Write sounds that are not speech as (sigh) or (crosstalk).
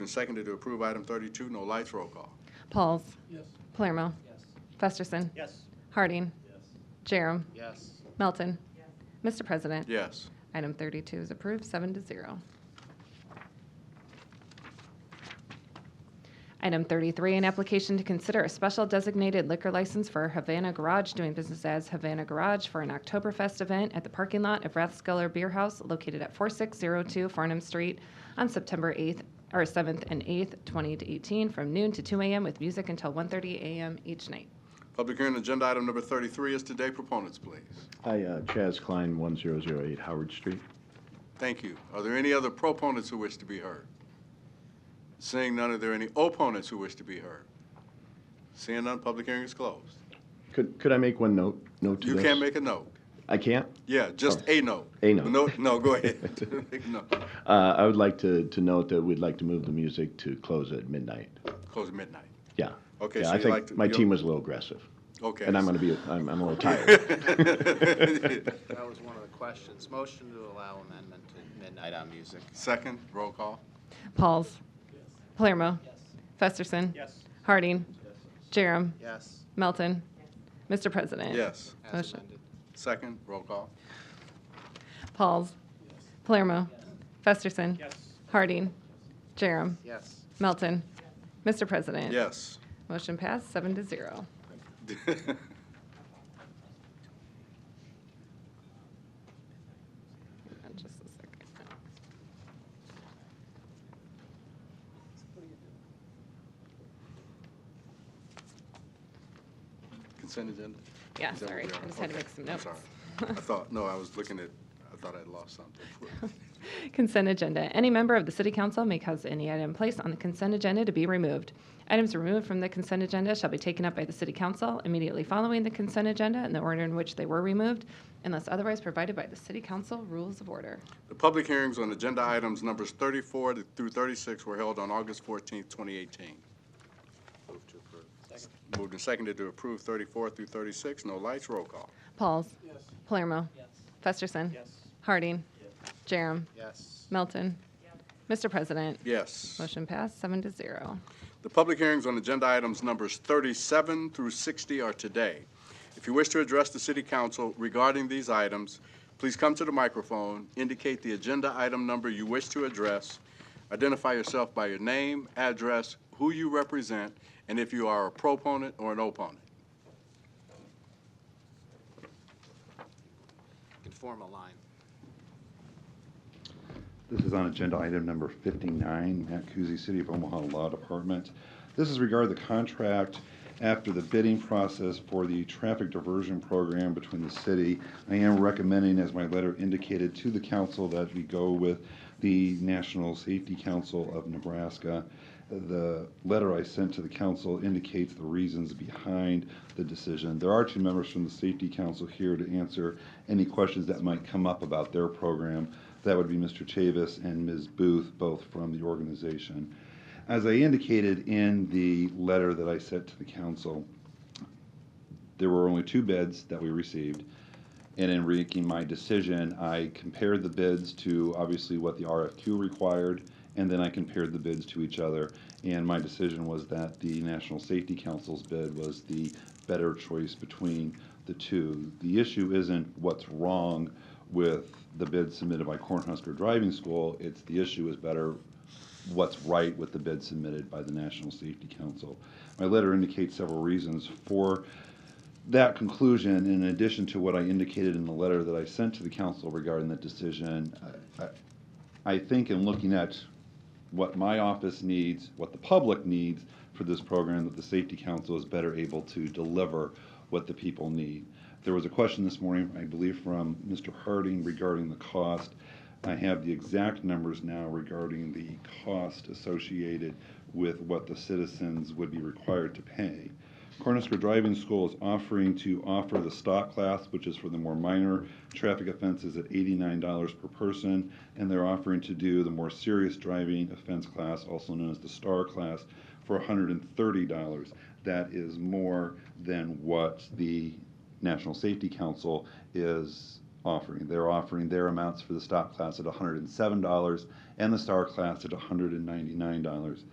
And seconded to approve item 32, no lights, roll call. Pauls. Yes. Palermo. Yes. Festerson. Yes. Harding. Yes. Jerem. Yes. Melton. Mr. President. Yes. Item 32 is approved, seven to zero. Item 33, an application to consider a special designated liquor license for Havana Garage doing business as Havana Garage for an Oktoberfest event at the parking lot of Rathskeller Beer House located at 4602 Farnham Street on September 8th, or 7th and 8th, 2018, from noon to 2 a.m. with music until 1:30 a.m. each night. Public hearing on agenda item number 33 is today. Proponents, please. Hi, uh, Chaz Klein, 1008 Howard Street. Thank you. Are there any other proponents who wish to be heard? Seeing none, are there any opponents who wish to be heard? Seeing none, public hearing is closed. Could, could I make one note, note to You this? can make a note. I can't? Yeah, just a note. Oh, A note. No, no, (laughs) go ahead. No, Uh, I would like to, to note that we'd like to move the music to close at midnight. Close at midnight. Yeah. Okay, Yeah, so I you think like to- My you'll- team was a little aggressive, Okay. and I'm (laughs) going to be, I'm, I'm a little tired. That was one of the questions. Motion to allow amendment to midnight on music. Second, roll call. Pauls. Palermo. Festerson. Yes. Harding. Jerem. Yes, Melton. Mr. President. Yes. as Motion. amended. Second, roll call. Pauls. Palermo. Festerson. Yes. Harding. Jerem. Yes, Melton. Mr. President. Yes. Motion passed, seven to zero. (laughs) Hang on Just a second. Consent agenda? Yeah, Is that what sorry. we are? I just had Okay, to make some I'm notes. sorry. I thought, no, I was looking at, I thought I'd lost (laughs) something. Consent agenda. Any member of the city council may cause any item placed on the consent agenda to be removed. Items removed from the consent agenda shall be taken up by the city council immediately following the consent agenda in the order in which they were removed, unless otherwise provided by the city council rules of order. The public hearings on agenda items numbers 34 to- through 36 were held on August 14th, 2018. move to approve. Moved and seconded to approve 34 through 36, no lights, roll call. Pauls. Yes. Palermo. Yes. Festerson. Yes. Harding. Jerem. Yes, Melton. Mr. President. Yes. Motion passed, seven to zero. The public hearings on agenda items numbers 37 through 60 are today. If you wish to address the city council regarding these items, please come to the microphone, indicate the agenda item number you wish to address, identify yourself by your name, address, who you represent, and if you are a proponent or an opponent. can form a line. This is on agenda item number 59, Matt Kuzi, City of Omaha Law Department. This is regarding the contract after the bidding process for the traffic diversion program between the city. I am recommending, as my letter indicated to the council, that we go with the National Safety Council of Nebraska. The letter I sent to the council indicates the reasons behind the decision. There are two members from the Safety Council here to answer any questions that might come up about their program. That would be Mr. Chavis and Ms. Booth, both from the organization. As I indicated in the letter that I sent to the council, there were only two bids that we received. And in making my decision, I compared the bids to obviously what the RFQ required, and then I compared the bids to each other. And my decision was that the National Safety Council's bid was the better choice between the two. The issue isn't what's wrong with the bid submitted by Cornhusker Driving School, it's the issue is better what's right with the bid submitted by the National Safety Council. My letter indicates several reasons for that conclusion, in addition to what I indicated in the letter that I sent to the council regarding that decision, I- I- I think in looking at what my office needs, what the public needs for this program, that the safety council is better able to deliver what the people need. There was a question this morning, I believe, from Mr. Harding regarding the cost. I have the exact numbers now regarding the cost associated with what the citizens would be required to pay. Cornhusker Driving School is offering to offer the stock class, which is for the more minor traffic offenses at $89 per person, and they're offering to do the more serious driving offense class, also known as the STAR class, for $130. That is more than what the National Safety Council is offering. They're offering their amounts for the stop class at $107 and the star class at $199.